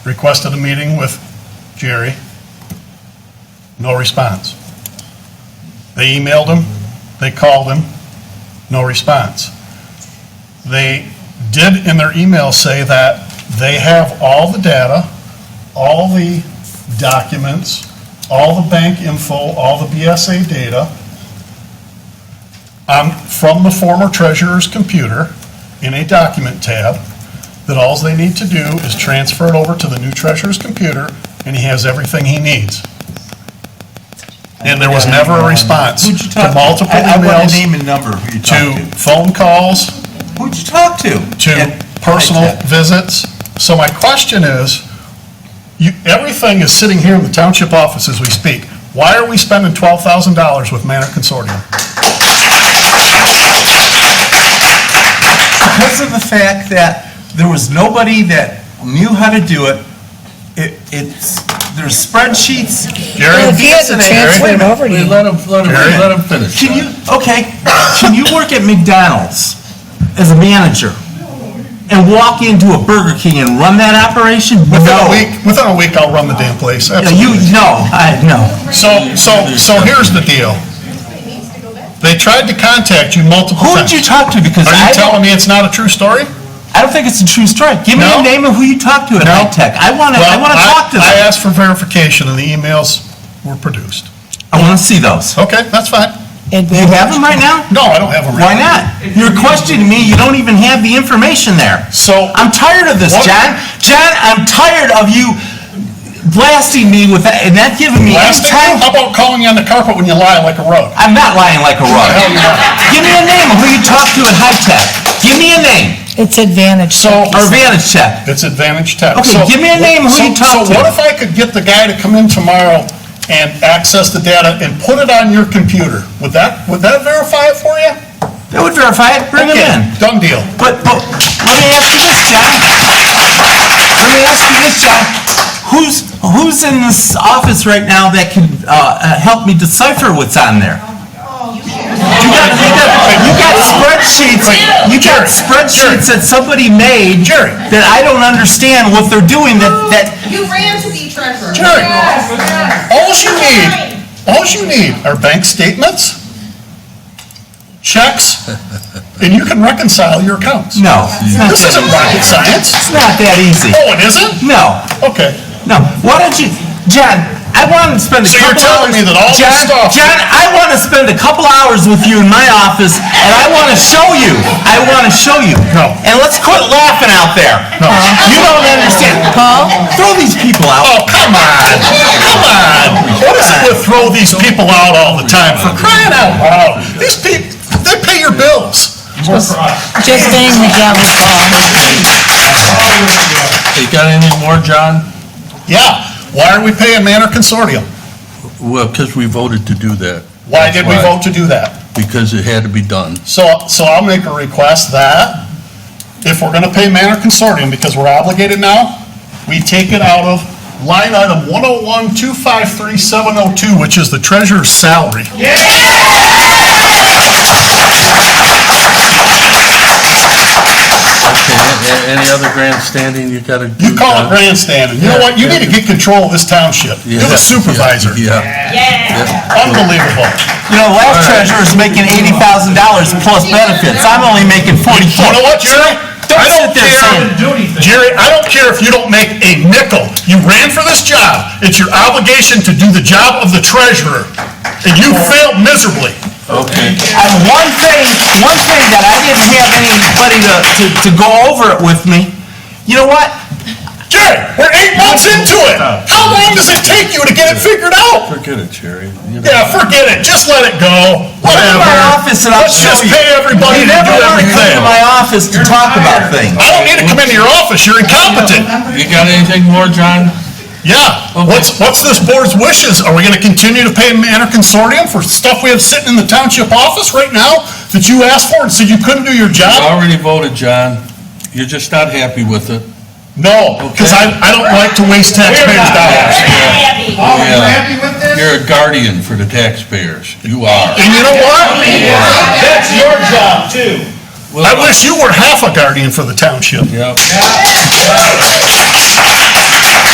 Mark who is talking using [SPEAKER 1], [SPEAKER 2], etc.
[SPEAKER 1] Requested a meeting with Jerry. No response. They emailed him, they called him, no response. They did in their email say that they have all the data, all the documents, all the bank info, all the BSA data um, from the former treasurer's computer in a document tab, that all they need to do is transfer it over to the new treasurer's computer, and he has everything he needs. And there was never a response
[SPEAKER 2] Who'd you
[SPEAKER 1] to
[SPEAKER 2] talk to?
[SPEAKER 1] multiple
[SPEAKER 2] I- I want a
[SPEAKER 1] emails,
[SPEAKER 2] name and number of who you talked
[SPEAKER 1] to
[SPEAKER 2] to.
[SPEAKER 1] phone calls,
[SPEAKER 2] Who'd you talk to?
[SPEAKER 1] to
[SPEAKER 2] And-
[SPEAKER 1] personal visits. So my question is, you, everything is sitting here in the township office as we speak. Why are we spending $12,000 with Manor Consortium?
[SPEAKER 2] Because of the fact that there was nobody that knew how to do it, it, it's, there's spreadsheets.
[SPEAKER 1] Jerry?
[SPEAKER 2] and
[SPEAKER 1] If
[SPEAKER 3] he hadn't
[SPEAKER 2] these and that.
[SPEAKER 3] transferred
[SPEAKER 2] Wait a minute.
[SPEAKER 3] over to
[SPEAKER 4] Wait, Let him, let him,
[SPEAKER 1] Jerry?
[SPEAKER 4] let him finish.
[SPEAKER 2] Can you, okay, can you work at McDonald's as a manager and walk into a Burger King and run that operation?
[SPEAKER 1] Within a
[SPEAKER 2] No.
[SPEAKER 1] week, within a week, I'll run the damn place,
[SPEAKER 2] No, You,
[SPEAKER 1] absolutely.
[SPEAKER 2] no, I, no.
[SPEAKER 1] So, so, so here's the deal. They tried to contact you multiple
[SPEAKER 2] Who did
[SPEAKER 1] times.
[SPEAKER 2] you talk to? Because
[SPEAKER 1] Are
[SPEAKER 2] I
[SPEAKER 1] you
[SPEAKER 2] don't,
[SPEAKER 1] telling me it's not a true story?
[SPEAKER 2] I don't think it's a true story. Give me
[SPEAKER 1] No?
[SPEAKER 2] the name of who you talked to at
[SPEAKER 1] No.
[SPEAKER 2] High Tech. I want to, I
[SPEAKER 1] Well,
[SPEAKER 2] want to talk to
[SPEAKER 1] I
[SPEAKER 2] them.
[SPEAKER 1] asked for verification, and the emails were produced.
[SPEAKER 2] I want to see those.
[SPEAKER 1] Okay, that's fine.
[SPEAKER 3] And
[SPEAKER 2] Do you have them right now?
[SPEAKER 1] No, I don't have them.
[SPEAKER 2] Why not? You're questioning me, you don't even have the information there.
[SPEAKER 1] So-
[SPEAKER 2] I'm tired of this,
[SPEAKER 1] What-
[SPEAKER 2] John. John, I'm tired of you blasting me with that, and not giving me any
[SPEAKER 1] Last
[SPEAKER 2] time.
[SPEAKER 1] how about calling you on the carpet when you lie like a rug?
[SPEAKER 2] I'm not lying like a rug.
[SPEAKER 1] Hell, you're not.
[SPEAKER 2] Give me a name of who you talked to at High Tech. Give me a name,
[SPEAKER 3] It's advantage.
[SPEAKER 1] So,
[SPEAKER 2] or Vantage Tech.
[SPEAKER 1] it's Advantage Tech.
[SPEAKER 2] Okay,
[SPEAKER 1] So-
[SPEAKER 2] give me a name, who
[SPEAKER 1] so-
[SPEAKER 2] you talk
[SPEAKER 1] So
[SPEAKER 2] to.
[SPEAKER 1] what if I could get the guy to come in tomorrow and access the data and put it on your computer? Would that, would that verify it for you?
[SPEAKER 2] That would verify it, bring him
[SPEAKER 1] Okay,
[SPEAKER 2] in.
[SPEAKER 1] Done deal.
[SPEAKER 2] But, but, let me ask you this, John. Let me ask you this, John. Who's, who's in this office right now that can, uh, uh, help me decipher what's on there? You got, you got, you got spreadsheets, you got spreadsheets that somebody made that I don't understand what they're doing, that, that,
[SPEAKER 5] You ran to the treasurer.
[SPEAKER 1] Jerry.
[SPEAKER 5] Yes, yes.
[SPEAKER 1] All you need, all you need are bank statements, checks, and you can reconcile your accounts.
[SPEAKER 2] no. it's not
[SPEAKER 1] This
[SPEAKER 2] that
[SPEAKER 1] isn't
[SPEAKER 2] easy.
[SPEAKER 1] rocket science.
[SPEAKER 2] It's not that easy.
[SPEAKER 1] Oh, it isn't?
[SPEAKER 2] No,
[SPEAKER 1] Okay.
[SPEAKER 2] no. Why don't you, John, I want to spend a
[SPEAKER 1] So you're
[SPEAKER 2] couple
[SPEAKER 1] telling
[SPEAKER 2] hours-
[SPEAKER 1] me that all this
[SPEAKER 2] John,
[SPEAKER 1] stuff-
[SPEAKER 2] John, I want to spend a couple hours with you in my office, and I want to show you. I want to show you.
[SPEAKER 1] No.
[SPEAKER 2] And let's quit laughing out there.
[SPEAKER 1] No.
[SPEAKER 2] You don't understand. Paul? Throw these people out.
[SPEAKER 1] Oh, come on, come on. What is it with throw these people out all the time for crying out loud? These people, they pay your bills.
[SPEAKER 3] Just saying the devil's law.
[SPEAKER 4] You got anything more, John?
[SPEAKER 1] Yeah, why are we paying Manor Consortium?
[SPEAKER 4] Well, because we voted to do that.
[SPEAKER 1] Why did we vote to do that?
[SPEAKER 4] Because it had to be done.
[SPEAKER 1] So, so I'll make a request that if we're gonna pay Manor Consortium, because we're obligated now, we take it out of line item 101253702, which is the treasurer's salary.
[SPEAKER 4] Okay, a- a- Any other grandstanding you got to do?
[SPEAKER 1] You call it
[SPEAKER 4] John?
[SPEAKER 1] grandstanding. You know what? You need to get control of this township. You're
[SPEAKER 4] Yeah,
[SPEAKER 1] the supervisor.
[SPEAKER 4] Yeah.
[SPEAKER 1] Unbelievable.
[SPEAKER 2] You know, last treasurer's making eighty thousand dollars plus benefits. I'm only making
[SPEAKER 1] You
[SPEAKER 2] forty-four.
[SPEAKER 1] know what, Jerry?
[SPEAKER 2] Don't
[SPEAKER 1] I
[SPEAKER 2] sit there saying.
[SPEAKER 1] Jerry, I don't care if you don't make a nickel. You ran for this job. It's your obligation to do the job of the treasurer, and you failed miserably.
[SPEAKER 4] Okay.
[SPEAKER 2] And one thing, one thing that I didn't have anybody to, to, to go over it with me, you know what?
[SPEAKER 1] Jerry, we're eight months into it. How long does it take you to get it figured out?
[SPEAKER 4] Forget it, Jerry. You
[SPEAKER 1] Yeah, forget it. Just let it go.
[SPEAKER 2] Come to
[SPEAKER 1] Whatever.
[SPEAKER 2] my office and I'll
[SPEAKER 1] Let's
[SPEAKER 2] show
[SPEAKER 1] just
[SPEAKER 2] you.
[SPEAKER 1] pay everybody
[SPEAKER 2] You
[SPEAKER 1] to
[SPEAKER 2] never
[SPEAKER 1] do
[SPEAKER 2] wanna come
[SPEAKER 1] everything.
[SPEAKER 2] to my office to talk about things.
[SPEAKER 1] I don't need to come into your office. You're incompetent.
[SPEAKER 4] You got anything more, John?
[SPEAKER 1] Yeah, what's, what's this board's wishes? Are we gonna continue to pay Manor Consortium for stuff we have sitting in the township office right now that you asked for and said you couldn't do your
[SPEAKER 4] You
[SPEAKER 1] job?
[SPEAKER 4] already voted, John. You're just not happy with it.
[SPEAKER 1] No, because I, I don't like to waste taxpayers' dollars.
[SPEAKER 4] Oh, you happy with this? You're a guardian for the taxpayers. You are.
[SPEAKER 1] And you know what? That's your job too. I wish you were half a guardian for the township.
[SPEAKER 4] Yep.